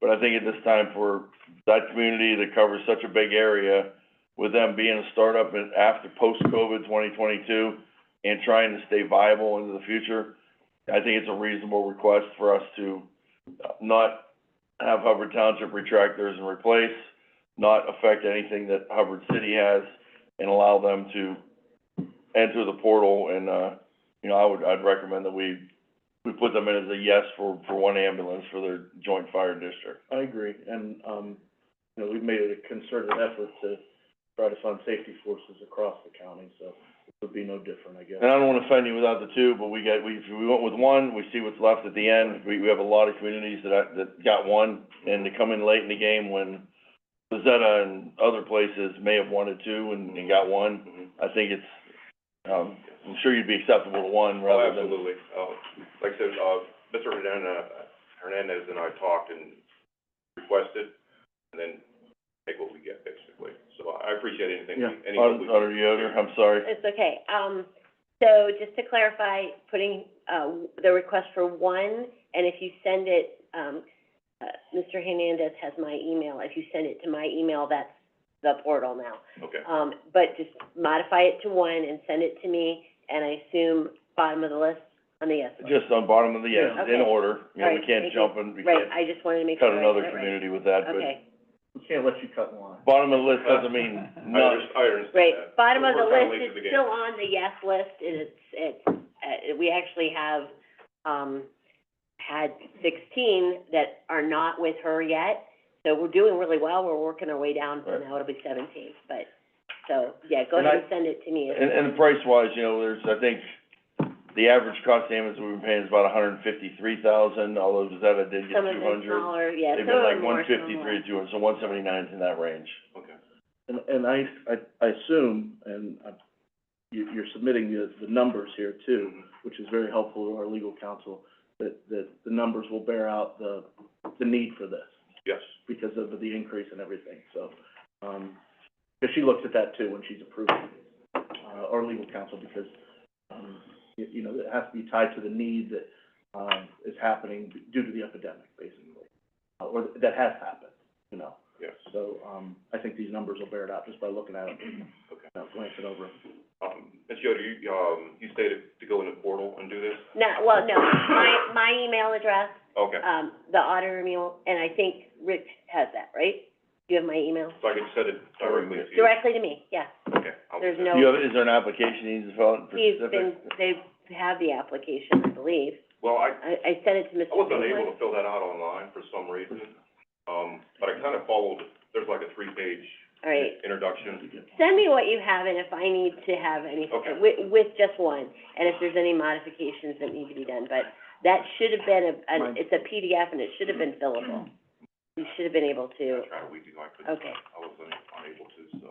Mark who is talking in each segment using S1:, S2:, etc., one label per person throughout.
S1: But I think at this time for that community that covers such a big area, with them being a startup and after post-COVID twenty twenty-two and trying to stay viable into the future, I think it's a reasonable request for us to not have Hubbard Township retractors and replace, not affect anything that Hubbard City has, and allow them to enter the portal and, uh, you know, I would, I'd recommend that we, we put them in as a yes for, for one ambulance for their joint fire district.
S2: I agree, and, um, you know, we've made a concerted effort to try to fund safety forces across the county, so it would be no different, I guess.
S1: And I don't wanna offend you without the two, but we got, we, if we went with one, we see what's left at the end. We, we have a lot of communities that, I- that got one, and they come in late in the game when Bezetta and other places may have wanted two and, and got one. I think it's, um, I'm sure you'd be acceptable to one
S3: Oh,
S1: rather than.
S3: absolutely. Oh, like I said, uh, Mr. Hernandez, Hernandez and I talked and requested, and then take what we get, basically. So I appreciate anything,
S2: Yeah.
S3: any help we can.
S1: Utter Yoder, I'm sorry.
S4: It's okay. Um, so just to clarify, putting, uh, the request for one, and if you send it, um, uh, Mr. Hernandez has my email. If you send it to my email, that's the portal now.
S3: Okay,
S4: Um, but just modify it to one and send it to me, and I assume bottom of the list on the yes list.
S1: Just on bottom of the, yes,
S4: Yeah.
S1: in order, you know, we
S4: Right,
S1: can't
S4: thank you.
S1: jump and we
S4: Right,
S1: can't
S4: I just wanted to make sure.
S1: cut
S4: I
S1: another
S4: got it right.
S1: community with that, but
S4: Okay,
S2: We can't let you cut in line.
S1: bottom of the list doesn't mean
S3: I
S1: none.
S3: under- I understand
S4: great.
S1: Uh,
S3: that.
S4: Bottom of the
S3: We're kinda
S4: list
S3: late to the
S4: is
S3: game.
S4: still on the yes list, and it's, it's, uh, we actually have, um, had sixteen that are not with her yet. So we're doing really well, we're working our way down, so
S1: Right.
S4: now it'll be seventeen, but, so, yeah, go
S1: And
S4: ahead and send it to me.
S1: And, and price-wise, you know, there's, I think, the average cost of ambulance we've been paying is about hundred and fifty-three thousand, although Zeta did get
S4: Some of
S1: two
S4: them
S1: hundred.
S4: smaller, yeah,
S1: They've
S4: some of
S1: been like
S4: them
S1: one
S4: more, some of them
S1: fifty-three, two hundred, so one seventy-nine's in that range.
S3: Okay.
S2: And, and I, I, I assume, and I, you, you're submitting the, the numbers here too, which is very helpful to our legal counsel, that, that the numbers will bear out the, the need for this
S3: Yes,
S2: because of the increase and everything, so, um, because she looks at that too when she's approving, uh, our legal counsel, because, um, you, you know, it has to be tied to the need that, um, is happening due to the epidemic, basically, uh, or that has happened, you know?
S3: yes.
S2: So, um, I think these numbers will bear it out just by looking at them,
S3: Okay.
S2: uh, glance it over.
S3: Um, Ms. Yoder, you, um, you stated to go in the portal and do this?
S4: No, well, no, my, my email address,
S3: Okay,
S4: um, the auditor email, and I think Rich has that, right? Do you have my email?
S3: so I can send it directly to you?
S4: Directly to me, yeah.
S3: Okay. I'll do
S4: There's
S3: that.
S4: no-
S1: Do you have, is there an application you need to fill out for
S4: He's
S1: specific?
S4: been, they have the application, I believe.
S3: Well, I,
S4: I, I sent it to Mr.
S3: I was
S4: Greenwood.
S3: unable to fill that out online for some reason, um, but I kind of followed, there's like a three-page
S4: All right.
S3: introduction.
S4: Send me what you have and if I need to have any,
S3: Okay.
S4: with, with just one, and if there's any modifications that need to be done, but that should have been a, an,
S2: Mine.
S4: it's a PDF and it should have been fillable. You should have been able to,
S3: I tried a week ago, I couldn't,
S4: okay.
S3: I was un- unable to, so,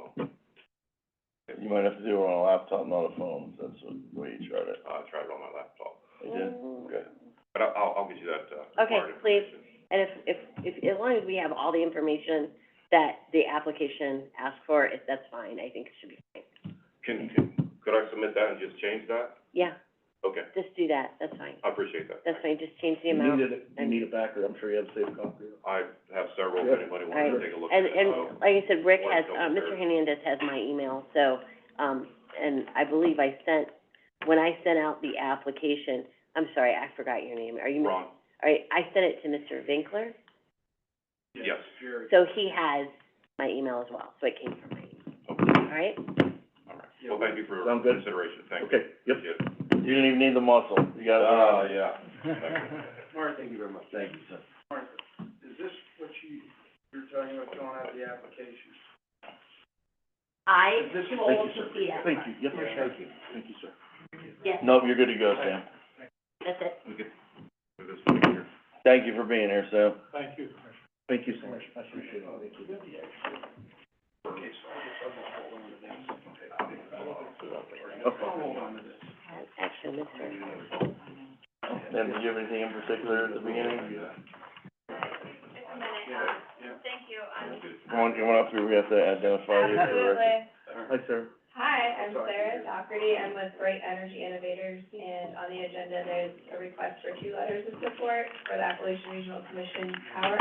S1: You might have to do it on a laptop, not a phone, that's what, the way you tried it.
S3: uh, I tried it on my laptop.
S1: I did, okay.
S3: But I- I'll, I'll get you that, uh,
S4: Okay,
S3: required
S4: please.
S3: information.
S4: And if, if, if, as long as we have all the information that the application asked for, if that's fine, I think it should be fine.
S3: Can, can, could I submit that and just change that?
S4: Yeah,
S3: Okay,
S4: just do that, that's fine.
S3: I appreciate that.
S4: That's fine, just change the
S2: You
S4: amount.
S2: need it, you need it back, or I'm sure you have a safe copy.
S3: I have several,
S2: Yeah.
S3: if anybody wants to
S4: Alright.
S3: take a look at Oh,
S4: And,
S3: it.
S4: and
S2: Oh,
S3: I'll-
S4: like I said, Rick
S3: Or
S4: has,
S3: go
S4: uh,
S3: with
S4: Mr.
S3: her.
S4: Hernandez has my email, so, um, and I believe I sent, when I sent out the application, I'm sorry, I forgot your name, are you,
S3: Ron,
S4: all right, I sent it to Mr. Vinkler,
S3: yes,
S4: so he has my email as well, so it came from my email,
S3: okay,
S4: all right?
S3: all right. Well, thank you for
S2: Sound good?
S3: consideration, thank you.
S2: Okay, yep.
S3: Yes.
S1: You didn't even need the muscle, you got it.
S3: Uh, yeah.
S5: Mark, thank you very much.
S1: Thank you, sir.
S5: Is this what you, you're talking about filling out the application?
S4: I
S5: This is-
S4: told Sophia,
S2: Thank you, yep,
S5: Yeah.
S2: thank you, thank you, sir.
S4: yes,
S1: Nope, you're good to go, Sam.
S4: that's it.
S3: We could do this one here.
S1: Thank you for being here, Sam.
S5: Thank you.
S2: Thank you so much, I appreciate it, thank you.
S4: Actually, Mr.
S1: And did you have anything in particular at the beginning?
S6: um,
S1: You want, you want up here, we have to identify you for the record.
S6: Absolutely.
S2: Hi, sir.
S6: Hi, I'm Sarah Doherty. I'm with Bright Energy Innovators, and on the agenda, there's a request for two letters of support for the Appalachian Regional Commission Power